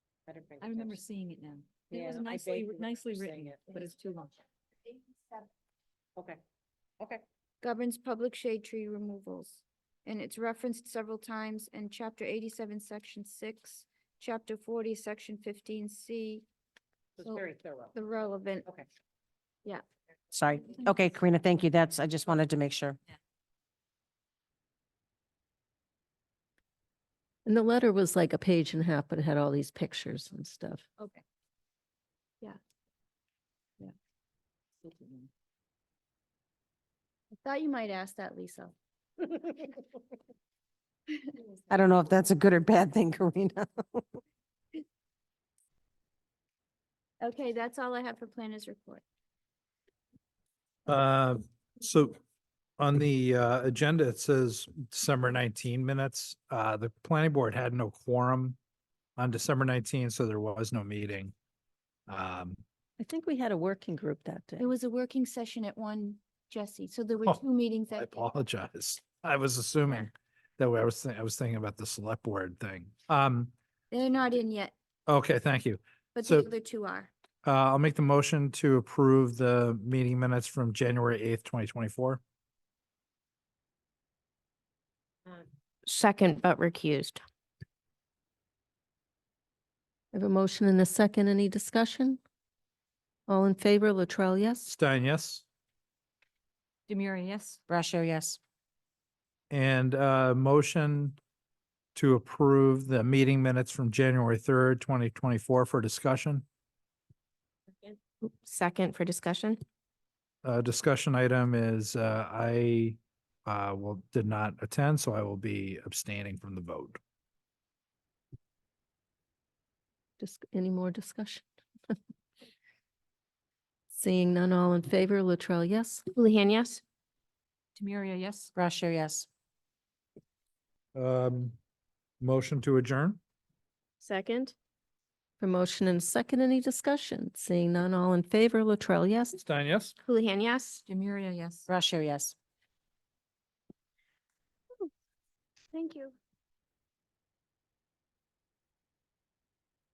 better bring. I it remember up. seeing it now. It Yeah, was I nicely, vaguely nicely remember written, seeing it. but it's too long. Okay, okay, governs public shade tree removals. And it's referenced several times in chapter eighty-seven, section six, chapter forty, section fifteen C, so it's So- very thorough. the relevant. Okay. Yeah. Sorry. Okay, Karina, thank you. That's, I just wanted to make sure. And the letter was like a page and a half, but it had all these pictures and stuff. Okay. I thought you might ask that, Lisa. I don't know if that's a good or bad thing, Karina. Okay, that's all I have for planners report. Uh, So on the uh, agenda, it says December 19 minutes. Uh, The planning board had no quorum on December 19, so there was no meeting. Um, I think we had a working group that day. It was a working session at one, Jesse, so there were Oh, two meetings I that. apologize. I was assuming that I was, thi- I was thinking about the select board thing. Um, They're not in yet, Okay, thank you. but the So- other two are. Uh, I'll make the motion to approve the meeting minutes from January 8th, 2024. Um, Second, but recused. I have a motion and a second. Any discussion? All in favor, Latrell, yes? Stein, yes? Demiria, yes? Brascio, yes. And uh motion to approve the meeting minutes from January third, twenty twenty-four for discussion. Second for discussion. Uh, discussion item is uh, I uh will, did not attend, so I will be abstaining from the vote. Just any more discussion? Seeing none, all in favor, Latrell, yes? Houlihan, yes. Demiria, yes? Brascio, yes. Um, motion to adjourn? Second. A motion and a second. Any discussion? Seeing none, all in favor, Latrell, yes? Stein, yes? Houlihan, yes. Demiria, yes? Brascio, yes. Thank you.